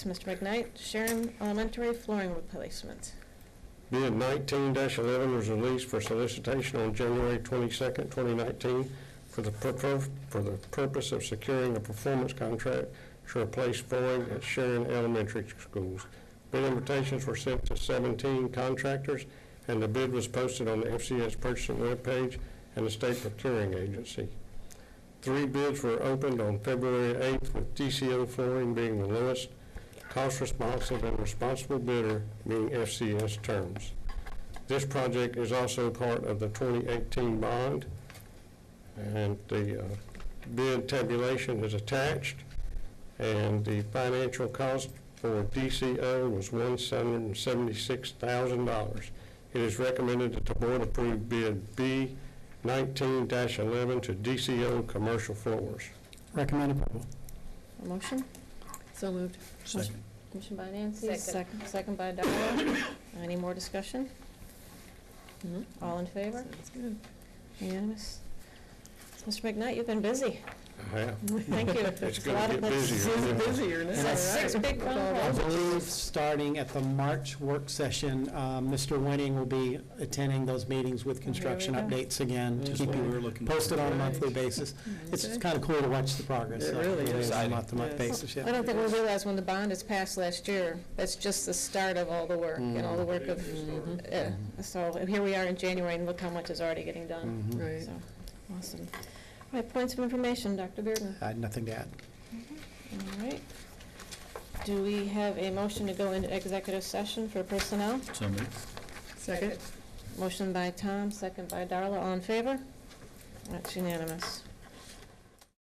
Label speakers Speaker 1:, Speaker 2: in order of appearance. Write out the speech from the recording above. Speaker 1: Mr. McKnight, Sharon Elementary flooring replacement.
Speaker 2: Bid nineteen eleven was released for solicitation on January twenty-second, twenty nineteen for the purpo- for the purpose of securing a performance contract to replace flooring at Sharon Elementary Schools. Bid invitations were sent to seventeen contractors, and the bid was posted on the FCS purchasing webpage and the state procuring agency. Three bids were opened on February eighth, with DCO flooring being the lowest, cost responsive and responsible bidder being FCS terms. This project is also part of the 2018 bond, and the uh, bid tabulation is attached, and the financial cost for DCO was $176,000. It is recommended that the board approve bid B 19-11 to DCO Commercial Floors.
Speaker 3: Recommend approval.
Speaker 1: A motion?
Speaker 4: So moved.
Speaker 3: Second.
Speaker 1: Motion by Nancy.
Speaker 4: Second.
Speaker 1: sec- Second by Darrell. Any more discussion? Hmm, All in favor?
Speaker 4: Sounds good.
Speaker 1: Unanimous? Mr. McKnight, you've been busy.
Speaker 2: I have
Speaker 1: Thank you.
Speaker 2: It's
Speaker 1: a lot of-
Speaker 2: gonna get
Speaker 1: that's-
Speaker 2: busier.
Speaker 4: Seems
Speaker 2: Yeah.
Speaker 4: busier now.
Speaker 1: that's Six
Speaker 4: All right.
Speaker 1: big phone
Speaker 3: I
Speaker 1: calls.
Speaker 3: believe, starting at the March work session, um, Mr. Winning will be attending those meetings with construction
Speaker 1: There we go.
Speaker 3: updates again, to
Speaker 5: That's
Speaker 3: keep
Speaker 5: what we
Speaker 3: you
Speaker 5: were looking for.
Speaker 3: posted on a monthly basis.
Speaker 1: Mm-hmm.
Speaker 3: It's
Speaker 4: Okay.
Speaker 3: kind of cool to watch the progress.
Speaker 5: It
Speaker 3: uh,
Speaker 5: really is.
Speaker 3: On a month-to-month
Speaker 4: Yes.
Speaker 3: basis,
Speaker 1: I
Speaker 3: yeah.
Speaker 1: don't think we realized when the bond is passed last year, that's just the start of all the work and all the work of,
Speaker 2: Mm-hmm.
Speaker 1: uh, so here we are in January and look how much is already getting done.
Speaker 3: Mhm.
Speaker 4: Right.
Speaker 1: So, awesome. All right, points of information, Dr. Bearden.
Speaker 3: I had nothing to add.
Speaker 4: Mm-hmm.
Speaker 1: All right. Do we have a motion to go into executive session for personnel?
Speaker 5: So moved.
Speaker 4: Second?
Speaker 1: Motion by Tom, second by Darla, all in favor? That's unanimous.